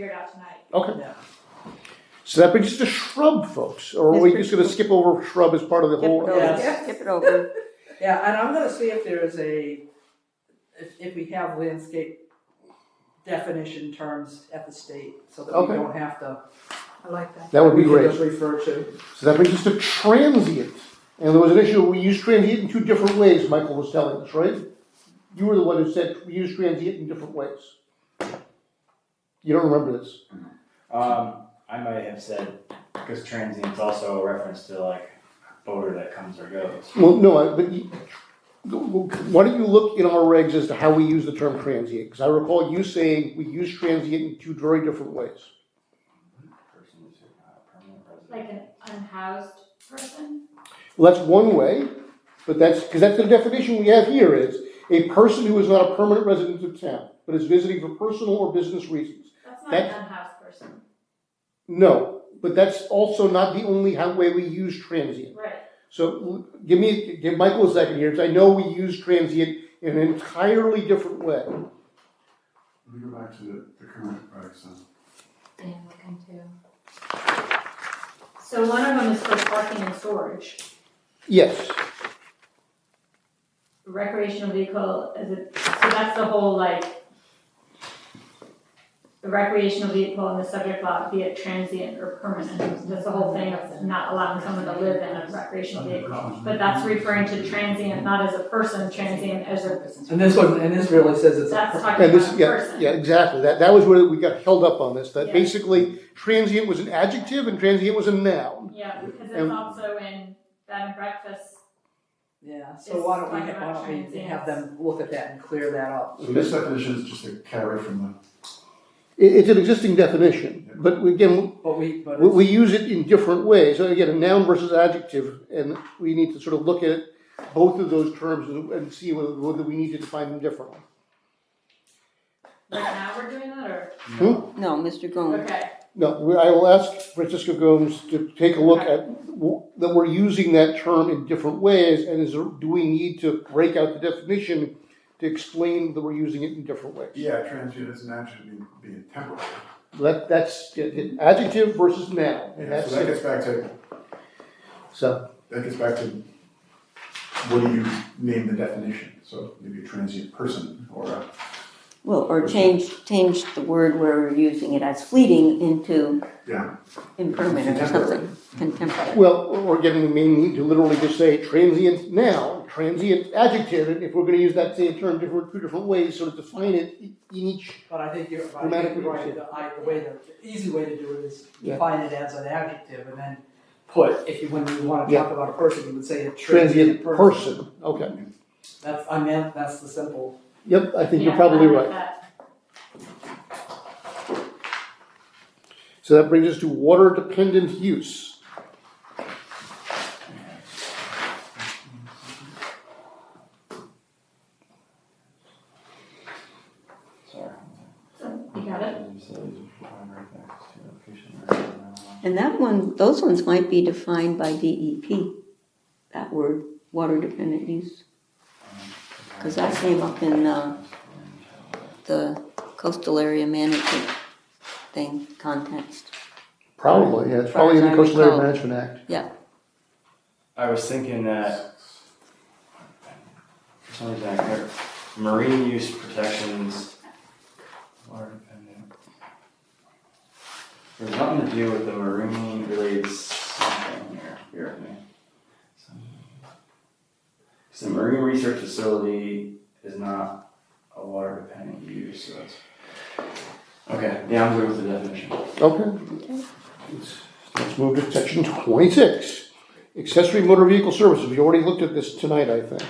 figure it out tonight. Okay, Yeah. so that brings us to shrub, folks, or are That's we pretty just gonna cool. skip over shrub as part of the Skip it whole? Yeah. over, Yes. skip it over. Yeah, and I'm gonna see if there is a, if, if we have landscape definition terms at the state, so that we Okay. don't have to. I like that. That would be we can great. just refer to. So that brings us to transient. And there was an issue, we use transient in two different ways, Michael was telling us, right? You were the one who said we use transient in different ways. You don't remember this. Um, I might have said, because transient's also a reference to like boater that comes or goes. Well, no, I, but you, why don't you look in our regs as to how we use the term transient? Because I recall you saying we use transient in two very different ways. Person who's not a permanent Like resident. an unhoused person? Well, that's one way, but that's, because that's the definition we have here is a person who is not a permanent resident of town, but is visiting for personal or business reasons. That's not an That's- unhoused person. No, but that's also not the only how, way we use transient. Right. So l- give me, give Michael a second here, because I know we use transient in an entirely different way. Let me go back to the, the current regs then. Yeah, looking too. So one of them is for parking and storage. Yes, Recreational vehicle is a, so that's the whole like, the recreational vehicle in the subject lot, be it transient or permanent. That's the whole thing of not allowing someone to live in a recreational vehicle. But that's referring to transient, not as a person, transient as a, And this one, and this really says it's. a that's per- talking and about a this, person. yeah, yeah, exactly. That, that was where we got held up on this, that Yeah. basically transient was an adjective and transient was a noun. Yeah, because it's And- also in bed and breakfast. Yeah, so why don't we, It's why don't we like have them look at that and clear that up? So this definition is just a carry from It, it's an existing definition, but again, But we, but we, it's, we use it in different ways. So again, a noun versus adjective, and we need to sort of look at both of those terms and, and see whether, whether we need to define them differently. Right now we're doing that, or No, Mr. Gomes. okay, No, we- I will ask Francisco Gomes to take a look at, w- that we're using that term in different ways, and is, there- do we need to break out the definition to explain that we're using it in different the, ways? yeah, transient is an adjective being, being temporary. That, that's it, it- adjective versus noun, and Yeah, that's so that it. gets back to, So, that gets back to what do you name the definition? So maybe a transient person or a, Well, or change, change the word where we're using it as fleeting into yeah, impermanent or something, contemporary. well, or again, we may need to literally just say transient noun, transient adjective, and if we're gonna use that same term different, two different ways, sort of define it in each, but I think you're, I think Grammatically, you're right, yeah. the, I, the way, the, the easy way to do it is Yeah. define it as an adjective and then put, if you, when you wanna Yeah. talk about a person, you would say a transient person, okay. That's, I meant, that's the simple. Yep, I think yeah, you're probably I right. like that. So that brings us to water dependent use. Sorry. So, You got it? And that one, those ones might be defined by DEP, that word, water dependent use. Because that came up in uh, the coastal area management thing context. Probably, yeah, it's probably in the Coastal Area Management Act. I was thinking that for some reason I can marine use protections. Water dependent. There's nothing to do with the marine related something here. Here with me. So the marine research facility is not a water dependent use. So that's okay. Yeah, I'm good with the definition. Okay. Let's move to section twenty-six, accessory motor vehicle services, we already looked at this tonight, I think.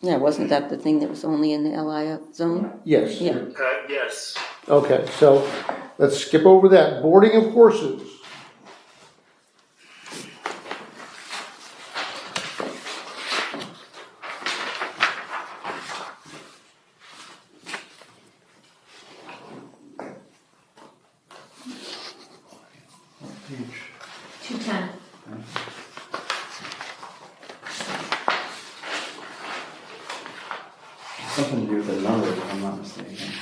Yeah, wasn't that the thing that was only in the LI zone? Yes. Yeah. Uh, yes. Okay, so let's skip over that, boarding of horses. Huge. Two ten. Some something to do with the number, if I'm not mistaken.